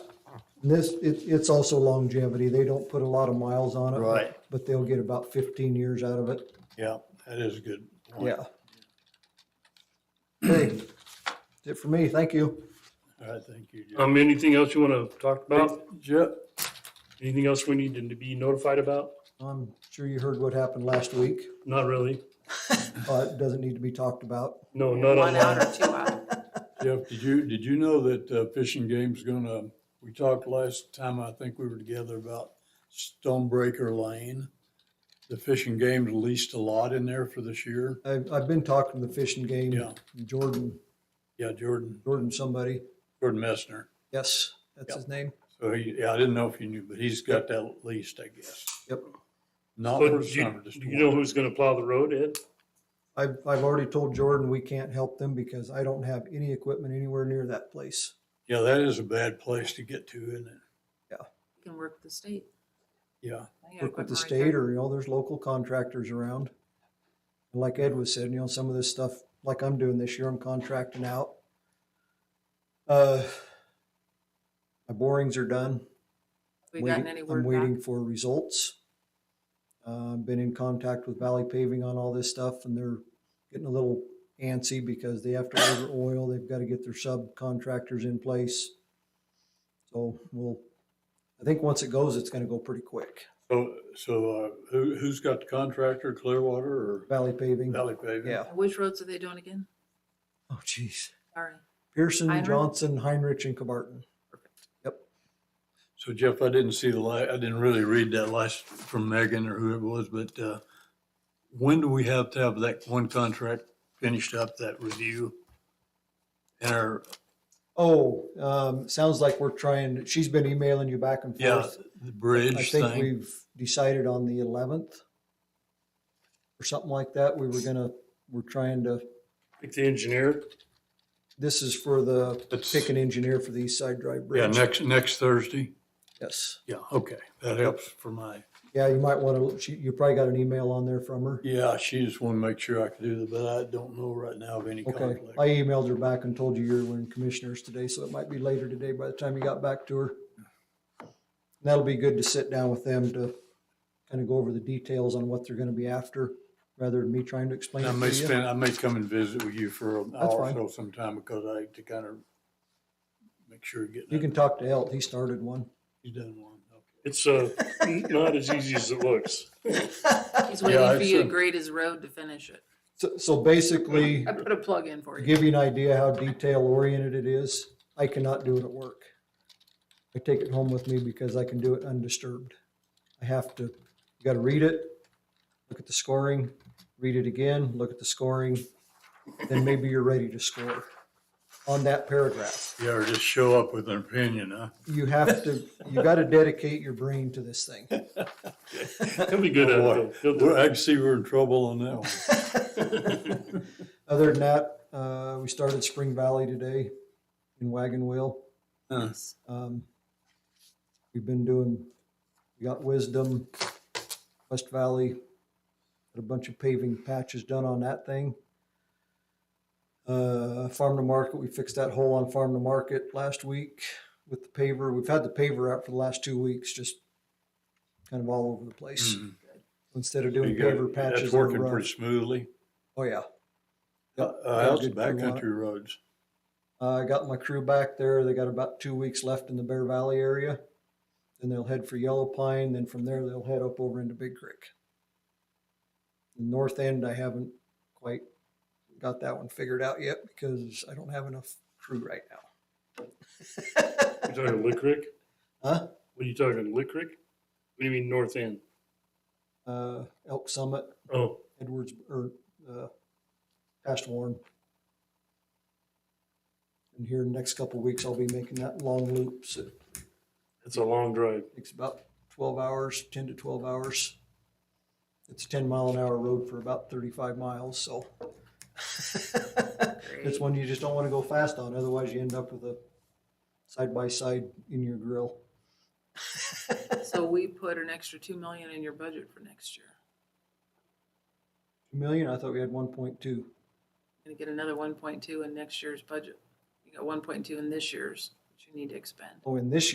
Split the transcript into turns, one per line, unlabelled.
And This, it, it's also longevity. They don't put a lot of miles on it. but-
Right.
But they'll get about fifteen years out of it.
Yeah, that is a good point.
Yeah. Hey, that's it for me. Thank you.
All right, thank you. Jeff.
Um, anything else you want to talk about?
Jeff,
Anything else we need to be notified about?
I'm sure you heard what happened last week.
Not really.
Uh, it doesn't need to be talked about.
No, not
One
online.
out or two out.
Jeff, did you, did you know that uh, fishing game's gonna, we talked last time, I think we were together about Stonebreaker Lane. The fishing game leased a lot in there for this year.
I've, I've been talking to the fishing game.
Yeah.
Jordan,
Yeah, Jordan,
Jordan somebody.
Jordan Messner.
Yes, that's
Yep.
his name.
So he, yeah, I didn't know if you knew, but he's got that leased, I guess.
Yep.
Not
So
for
do you,
summer, just
do you know
one.
who's going to plow the road, Ed?
I've, I've already told Jordan we can't help them because I don't have any equipment anywhere near that place.
Yeah, that is a bad place to get to, isn't it?
You can work with the state.
Yeah,
They
work with
got
the
equipment right
state or, you know, there's local contractors around. And Like Ed was saying, you know, some of this stuff, like I'm doing this year, I'm contracting out. Uh, my borings are done.
there. We gotten
Waiting-
any
I'm
word
waiting
back?
for results. Uh, I've been in contact with Valley Paving on all this stuff and they're getting a little antsy because they have to order oil. They've got to get their subcontractors in place. So we'll, I think once it goes, it's going to go pretty quick.
so, so, uh, who, who's got the contractor, Clearwater or
Valley Paving.
Valley Paving?
Yeah.
Which roads are they doing again?
Oh, jeez.
Sorry.
Pearson,
Heinrich?
Johnson, Heinrich, and Cabarton.
So Jeff, I didn't see the la, I didn't really read that last from Megan or who it was, but, uh, when do we have to have that one contract finished up, that review? And our,
Oh, um, sounds like we're trying, she's been emailing you back and
yeah,
forth.
the
I
bridge
think
thing?
we've decided on the eleventh or something like that. We were gonna, we're trying to,
Like the engineer?
this is for the,
It's-
pick an engineer for the East Side Drive
Yeah,
Bridge.
next, next Thursday?
Yes.
Yeah, okay, that helps for my,
Yeah, you might wanna, she, you probably got an email on there from her.
yeah, she just wanted to make sure I could do that, but I don't know right now of any
Okay,
conflict.
I emailed her back and told you you were in commissioners today, so it might be later today by the time you got back to her. And That'll be good to sit down with them to kind of go over the details on what they're gonna be after, rather than me trying to explain
And I
it
may
to you.
spend, I may come and visit with you for an
That's
hour or
fine.
so sometime because I, to kind of make sure you're
You
getting,
can talk to Elt, he started one.
you done one. okay.
It's uh, not as easy as it looks.
He's
Yeah,
waiting for
it's
you
a-
to grade his road to finish it.
So, so basically,
I put a plug in for
to
you.
give you an idea how detail oriented it is, I cannot do it at work. I take it home with me because I can do it undisturbed. I have to, you gotta read it, look at the scoring, read it again, look at the scoring, then maybe you're ready to score on that paragraph.
Yeah, or just show up with an opinion, huh?
You have to, you gotta dedicate your brain to this thing.
He'll be good
Oh,
at
boy.
it. though. He'll do
We're, I
it.
can see we're in trouble on that one.
Other than that, uh, we started Spring Valley today in Wagon Wheel.
Huh.
Um, We've been doing, we got Wisdom, West Valley, got a bunch of paving patches done on that thing. Uh, Farm to Market, we fixed that hole on Farm to Market last week with the paver. We've had the paver out for the last two weeks, just kind of all over the place.
Mm.
Instead of doing
You got-
paver patches.
That's
on the
working
road.
pretty smoothly.
Oh, yeah.
Uh,
got
uh, how's the
good crew on it.
backcountry roads?
Uh, I got my crew back there. They got about two weeks left in the Bear Valley area. Then they'll head for Yellow Pine. Then from there, they'll head up over into Big Creek. The north end, I haven't quite got that one figured out yet because I don't have enough crew right now.
You're talking Lickrick?
Huh?
What are you talking, Lickrick? What do you mean, North End?
Uh, Elk Summit,
Oh,
Edwards, or uh, past Warren. And here in the next couple weeks, I'll be making that long loop. So it
that's a long drive.
takes about 12 hours, 10 to 12 hours. It's a 10 mile an hour road for about 35 miles, so. It's one you just don't want to go fast on, otherwise you end up with a side by side in your grill.
So we put an extra two million in your budget for next year.
Two million, I thought we had one point two.
Gonna get another one point two in next year's budget. You got one point two in this year's, which you need to expend.
Oh, and this